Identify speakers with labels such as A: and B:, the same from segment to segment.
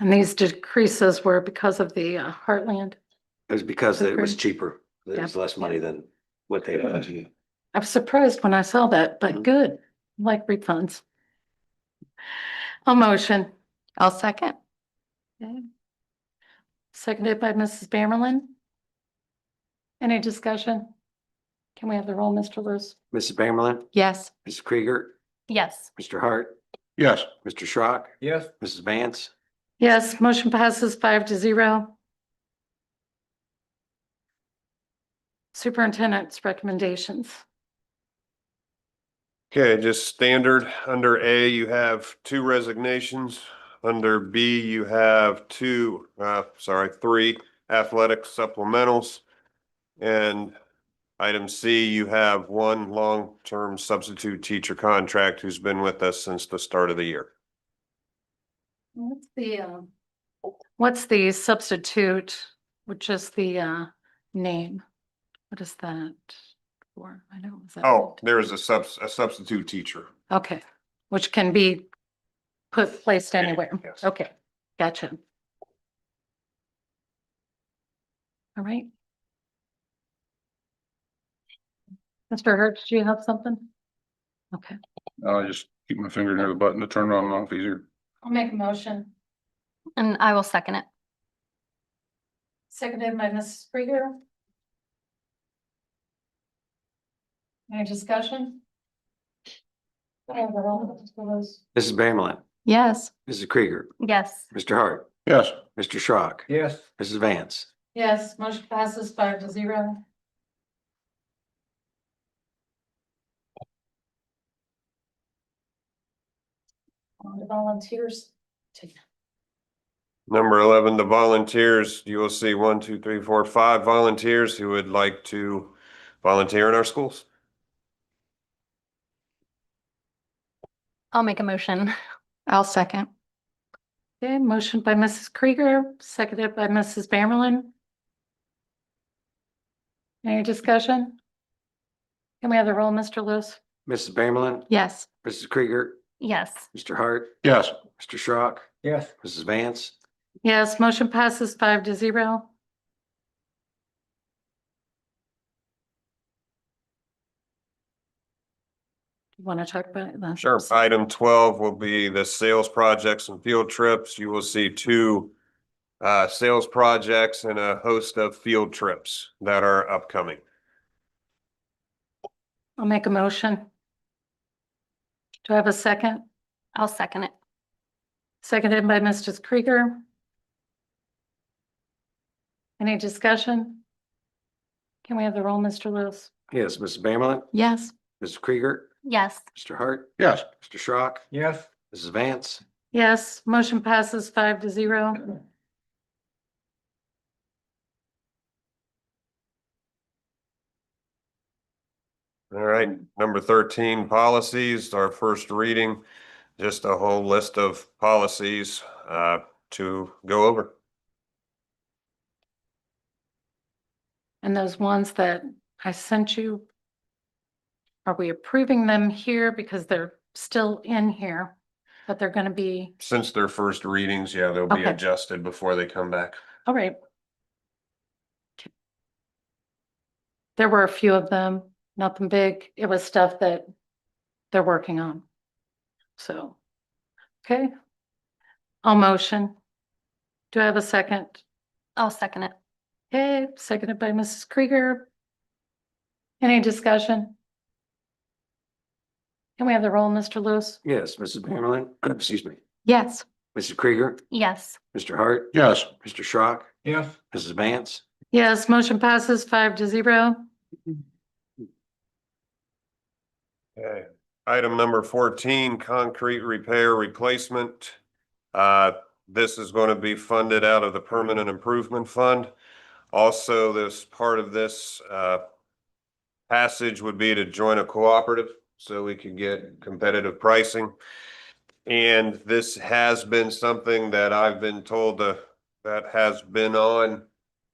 A: And these decreases were because of the uh, Heartland.
B: It was because it was
A: Okay.
B: cheaper. It
A: Yeah.
B: was less money than what they budgeted.
A: I was surprised when I saw that, but
B: Mhm.
A: good, like refunds. A motion,
C: I'll second.
A: seconded by Mrs. Bamerlin. Any discussion? Can we have the roll, Mr. Lewis?
B: Mrs. Bamerlin,
C: Yes.
B: Mrs. Krieger,
C: Yes.
B: Mr. Hart,
D: Yes.
B: Mr. Schrock,
D: Yes.
B: Mrs. Vance,
A: Yes, motion passes five to zero. Superintendent's recommendations.
E: Okay, just standard. Under A, you have two resignations. Under B, you have two, uh, sorry, three athletic supplementals. And item C, you have one long-term substitute teacher contract who's been with us since the start of the year.
A: What's the, um, what's the substitute, which is the, uh, name? What is that for? I know. is that
E: Oh,
A: what-
E: there is a subs, a substitute teacher.
A: Okay, which can be put, placed anywhere.
E: Yes.
A: Okay, gotcha. All right. Mr. Hertz, do you have something? Okay.
D: I'll just keep my finger near the button to turn it on and off easier.
A: I'll make a motion.
C: And I will second it.
A: Seconded by Mrs. Krieger. Any discussion?
B: Mrs. Bamerlin,
C: Yes.
B: Mrs. Krieger,
C: Yes.
B: Mr. Hart,
D: Yes.
B: Mr. Schrock,
D: Yes.
B: Mrs. Vance,
A: Yes, motion passes five to zero. On to volunteers.
E: Number eleven, the volunteers, you will see one, two, three, four, five volunteers who would like to volunteer in our schools.
C: I'll make a motion. I'll second.
A: Okay, motion by Mrs. Krieger, seconded by Mrs. Bamerlin. Any discussion? Can we have the roll, Mr. Lewis?
B: Mrs. Bamerlin,
C: Yes.
B: Mrs. Krieger,
C: Yes.
B: Mr. Hart,
D: Yes.
B: Mr. Schrock,
D: Yes.
B: Mrs. Vance,
A: Yes, motion passes five to zero. Want to talk about it? then?
E: Sure. Item twelve will be the sales projects and field trips. You will see two uh, sales projects and a host of field trips that are upcoming.
A: I'll make a motion. Do I have a second?
C: I'll second it.
A: Seconded by Mrs. Krieger. Any discussion? Can we have the roll, Mr. Lewis?
B: yes, Mrs. Bamerlin,
C: Yes.
B: Mrs. Krieger,
C: Yes.
B: Mr. Hart,
D: Yes.
B: Mr. Schrock,
D: Yes.
B: Mrs. Vance,
A: Yes, motion passes five to zero.
E: All right, number thirteen, policies, our first reading, just a whole list of policies uh, to go over.
A: And those ones that I sent you, are we approving them here because they're still in here, but they're going to be,
E: Since their first readings, yeah, they'll be
A: Okay.
E: adjusted before they come back.
A: all right. Okay. There were a few of them, nothing big. It was stuff that they're working on. So, okay. I'll motion. Do I have a second?
C: I'll second it.
A: Okay, seconded by Mrs. Krieger. Any discussion? Can we have the roll, Mr. Lewis?
B: yes, Mrs. Bamerlin, excuse me,
C: Yes.
B: Mrs. Krieger,
C: Yes.
B: Mr. Hart,
D: Yes.
B: Mr. Schrock,
D: Yes.
B: Mrs. Vance,
A: Yes, motion passes five to zero.
E: Okay, item number fourteen, concrete repair replacement. Uh, this is going to be funded out of the Permanent Improvement Fund. Also, this part of this, uh, passage would be to join a cooperative so we could get competitive pricing. And this has been something that I've been told to- that has been on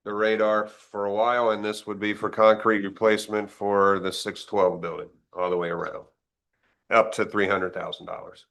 E: the radar for a while, and this would be for concrete replacement for the six twelve building all the way around. Up to three hundred thousand dollars.